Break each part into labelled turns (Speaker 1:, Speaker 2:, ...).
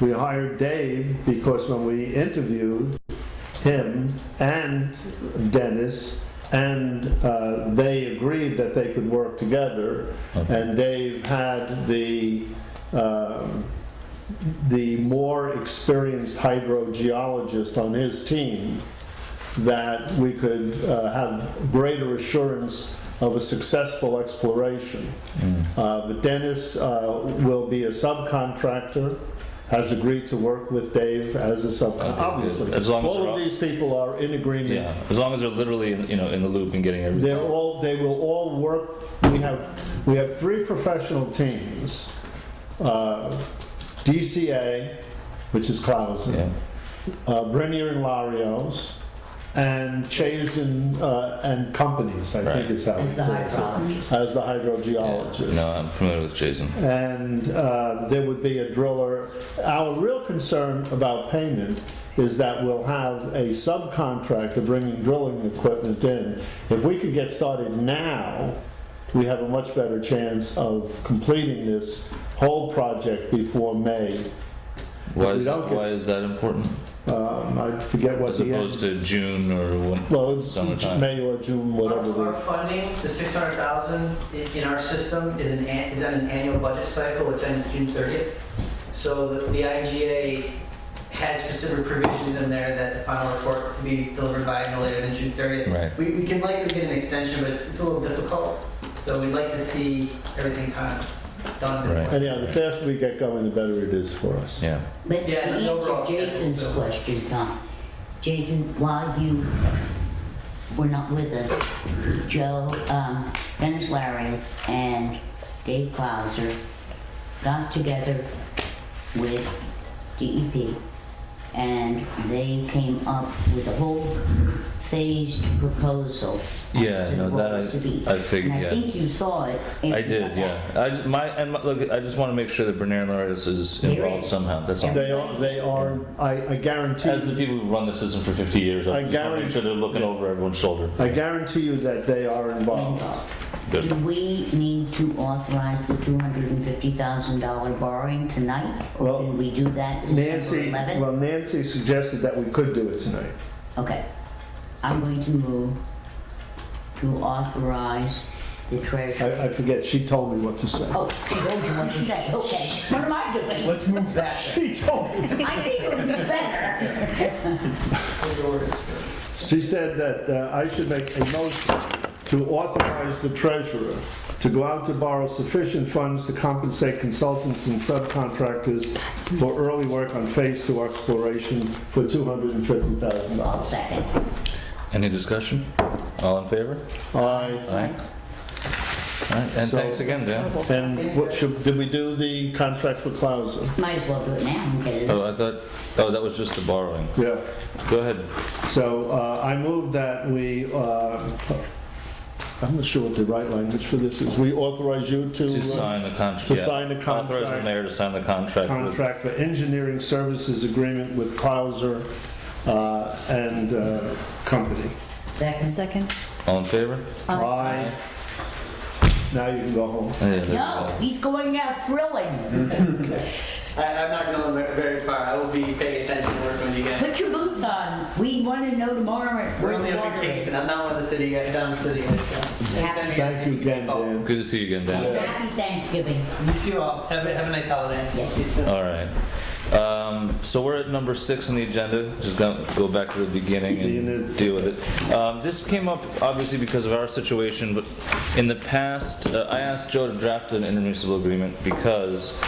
Speaker 1: We hired Dave because when we interviewed him and Dennis, and uh, they agreed that they could work together, and Dave had the, um, the more experienced hydrogeologist on his team, that we could uh, have greater assurance of a successful exploration.
Speaker 2: Mm.
Speaker 1: Uh, But Dennis uh, will be a subcontractor, has agreed to work with Dave as a subcontractor,
Speaker 2: Okay,
Speaker 1: obviously.
Speaker 2: as long as
Speaker 1: All
Speaker 2: they're
Speaker 1: of
Speaker 2: all-
Speaker 1: these people are in agreement.
Speaker 2: Yeah, as long as they're literally, in- you know, in the loop and getting everything.
Speaker 1: They're all, they will all work, we have, we have three professional teams. Uh, DCA, which is Clausen,
Speaker 2: Yeah,
Speaker 1: uh, Brenier and Larios, and Chase and, uh, and Companies, I think
Speaker 2: Right.
Speaker 1: is how.
Speaker 3: As the
Speaker 1: it goes.
Speaker 3: hydrologist.
Speaker 1: As the
Speaker 2: yeah.
Speaker 1: hydrogeologist.
Speaker 2: No, I'm familiar with Jason.
Speaker 1: And uh, there would be a driller. Our real concern about payment is that we'll have a subcontractor bringing drilling equipment in. If we could get started now, we have a much better chance of completing this whole project before May.
Speaker 2: Why
Speaker 1: we
Speaker 2: is,
Speaker 1: don't get-
Speaker 2: why is that important?
Speaker 1: Um, I forget what
Speaker 2: As
Speaker 1: the end.
Speaker 2: opposed to June or when?
Speaker 1: Well,
Speaker 2: Summertime.
Speaker 1: May or June,
Speaker 4: Our
Speaker 1: whatever
Speaker 4: our
Speaker 1: the,
Speaker 4: funding, the 600,000 i- in our system is an, an- is on an annual budget cycle, which ends June 30th. So the- the IGA has specific provisions in there that the final report can be delivered by no later than June 30th.
Speaker 2: Right.
Speaker 4: We, we can likely get an extension, but it's, it's a little difficult, so we'd like to see everything kind of done.
Speaker 2: Right.
Speaker 1: anyhow, the faster we get going, the better it is for us.
Speaker 2: Yeah,
Speaker 3: But to
Speaker 4: Yeah, and the overall
Speaker 3: answer
Speaker 4: schedule,
Speaker 3: Jason's
Speaker 4: so-
Speaker 3: question, Tom, Jason, while you were not with us, Joe, um, Dennis Larios and Dave Clauser got together with DEP and they came up with a whole phased proposal. as
Speaker 2: Yeah,
Speaker 3: to
Speaker 2: no,
Speaker 3: what
Speaker 2: that I-
Speaker 3: was to be.
Speaker 2: I figured,
Speaker 3: And
Speaker 2: yeah.
Speaker 3: I think you saw it. if
Speaker 2: I
Speaker 3: you got
Speaker 2: did,
Speaker 3: back.
Speaker 2: yeah. I just, my, and my- look, I just want to make sure that Bernard Larios is
Speaker 3: Here
Speaker 2: involved
Speaker 3: is-
Speaker 2: somehow, that's all.
Speaker 1: They are, they are, I, I guarantee.
Speaker 2: As the people who've run the system for 50 years,
Speaker 1: I
Speaker 2: I just want to
Speaker 1: guarantee-
Speaker 2: make sure they're looking over everyone's shoulder.
Speaker 1: I guarantee you that they are involved.
Speaker 2: Good.
Speaker 3: Do we need to authorize the $250,000 borrowing tonight? Or
Speaker 1: Well,
Speaker 3: can we do that December
Speaker 1: Nancy,
Speaker 3: 11th?
Speaker 1: well, Nancy suggested that we could do it tonight.
Speaker 3: Okay. I'm going to move to authorize the treasurer.
Speaker 1: I, I forget, she told me what to say.
Speaker 3: Oh, you told you what to say, okay. What am I doing?
Speaker 4: Let's move that.
Speaker 1: She told me.
Speaker 3: I think it would be better.
Speaker 1: She said that uh, I should make a motion to authorize the treasurer to go out to borrow sufficient funds to compensate consultants and subcontractors for early work on phase two exploration for
Speaker 3: I'll
Speaker 1: $250,000.
Speaker 3: second.
Speaker 2: Any discussion? All in favor?
Speaker 1: Aye.
Speaker 2: Aye. All right, and
Speaker 1: So-
Speaker 2: thanks again, Dan.
Speaker 1: And what should, did we do the contract for Clausen?
Speaker 3: Might as well do it now and get it.
Speaker 2: Oh, I thought, oh, that was just the borrowing.
Speaker 1: Yeah.
Speaker 2: Go ahead.
Speaker 1: So uh, I move that we, uh, I'm not sure what the right language for this is. We authorize you to.
Speaker 2: To
Speaker 1: uh,
Speaker 2: sign the contract.
Speaker 1: to sign the
Speaker 2: Authorize the
Speaker 1: contract.
Speaker 2: mayor to sign the contract with
Speaker 1: contract for engineering services agreement with Clauser uh, and uh, company.
Speaker 3: Second.
Speaker 5: Second.
Speaker 2: All in favor?
Speaker 1: Aye. Now you can go home.
Speaker 2: Yeah, there we
Speaker 3: No,
Speaker 2: go.
Speaker 3: he's going out drilling.
Speaker 4: I, I'm not going very- very far, I will be paying attention and working with you guys.
Speaker 3: Put your boots on. We want to know tomorrow
Speaker 4: We're
Speaker 3: where
Speaker 4: only
Speaker 3: the
Speaker 4: up in
Speaker 3: water is.
Speaker 4: Kingston, I'm not one of the city guys, down in the city uh, guys. so.
Speaker 3: Yeah.
Speaker 4: Anytime guys
Speaker 1: Thank you
Speaker 4: need me,
Speaker 1: again,
Speaker 4: call.
Speaker 1: Dan.
Speaker 2: Good to see you again, Dan.
Speaker 3: Happy Thanksgiving.
Speaker 4: You too all. Have a, have a nice holiday.
Speaker 3: Yes.
Speaker 4: See you soon.
Speaker 2: All right. Um, so we're at number six on the agenda. Just go, go back to the beginning and deal with it. Um, this came up obviously because of our situation, but in the past, uh, I asked Joe to draft an intermunicipal agreement because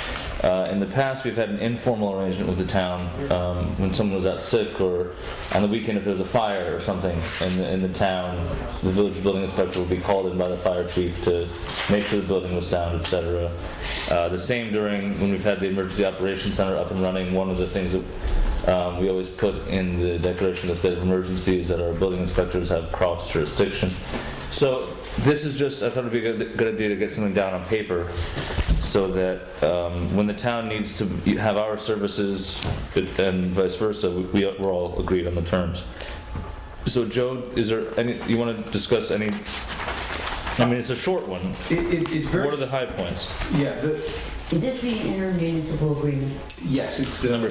Speaker 2: uh, in the past we've had an informal arrangement with the town um, when someone was out sick or on the weekend if there's a fire or something in the, in the town, the village building inspector would be called in by the fire chief to make sure the building was sound, etc. Uh, the same during when we've had the emergency operations center up and running. One of the things that um, we always put in the declaration of state of emergency is that our building inspectors have cross jurisdiction. So this is just I thought it'd be a good, good idea to get something down on paper so that um, when the town needs to have our services and vice versa, we, we're all agreed on the terms. So Joe, is there any, you want to discuss any, I mean, it's a short one.
Speaker 6: It, it, it's very,
Speaker 2: What are the high points?
Speaker 6: yeah, the,
Speaker 7: Is this the intermunicipal agreement?
Speaker 3: Yes, it's the
Speaker 2: Number